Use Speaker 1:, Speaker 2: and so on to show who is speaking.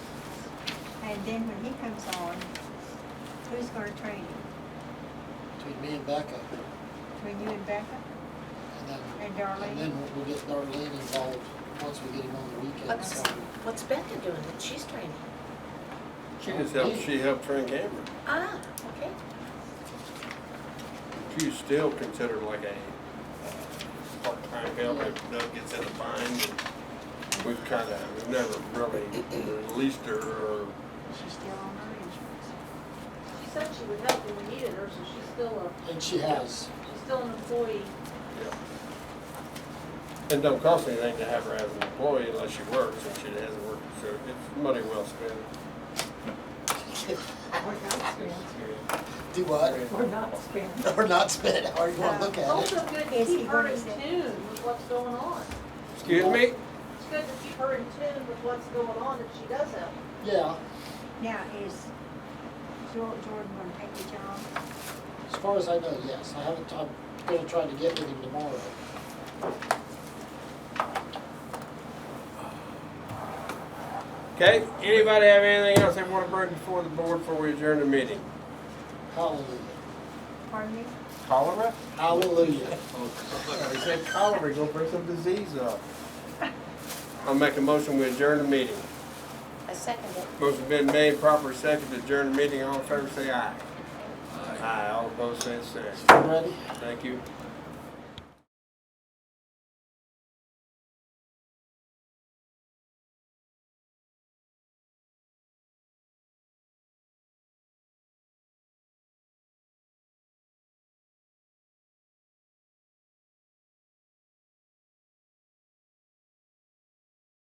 Speaker 1: And then when he comes on, who's gonna train him?
Speaker 2: between me and Becca,
Speaker 1: Between you and Becca?
Speaker 2: and then.
Speaker 1: And Darlene?
Speaker 2: And then we'll- we'll get Darlene involved, once we get him on the weekend,
Speaker 3: What's,
Speaker 2: so.
Speaker 3: what's Becca doing that she's training?
Speaker 4: She just helped, she helped Frank Amber.
Speaker 3: Ah, okay.
Speaker 4: She's still considered like a uh, part-time help if Doug gets in a bind. and We've kind of, we've never really released her or,
Speaker 1: She's still on her insurance.
Speaker 5: She said she would help when we needed her, so she's still
Speaker 2: And she has,
Speaker 5: a, she's still an employee.
Speaker 4: yeah. It don't cost anything to have her as an employee unless she works, and she hasn't worked, so it's money well spent.
Speaker 2: do what,
Speaker 6: We're not spending.
Speaker 2: or not spend, how you wanna look at
Speaker 5: It's
Speaker 2: it.
Speaker 5: also good to
Speaker 1: Is he
Speaker 5: keep her
Speaker 1: gonna
Speaker 5: in
Speaker 1: say-
Speaker 5: tune with what's going on.
Speaker 4: Excuse me?
Speaker 5: It's good to keep her in tune with what's going on if she does help.
Speaker 2: Yeah,
Speaker 1: Now, is Jor- Jordan gonna take the job?
Speaker 2: as far as I know, yes, I haven't, I'm gonna try to get with him tomorrow.
Speaker 4: Okay, anybody have anything else they want to bring before the board before we adjourn the meeting?
Speaker 2: Hallelujah,
Speaker 1: Pardon me?
Speaker 4: Cholera?
Speaker 2: hallelujah.
Speaker 4: They said cholera, gonna bring some disease up. I'll make a motion, we adjourn the meeting.
Speaker 3: I second it.
Speaker 4: Motion been made, proper second, to adjourn the meeting, all in favor, say aye. Aye, all opposed, say aye.
Speaker 2: Ready?
Speaker 4: Thank you.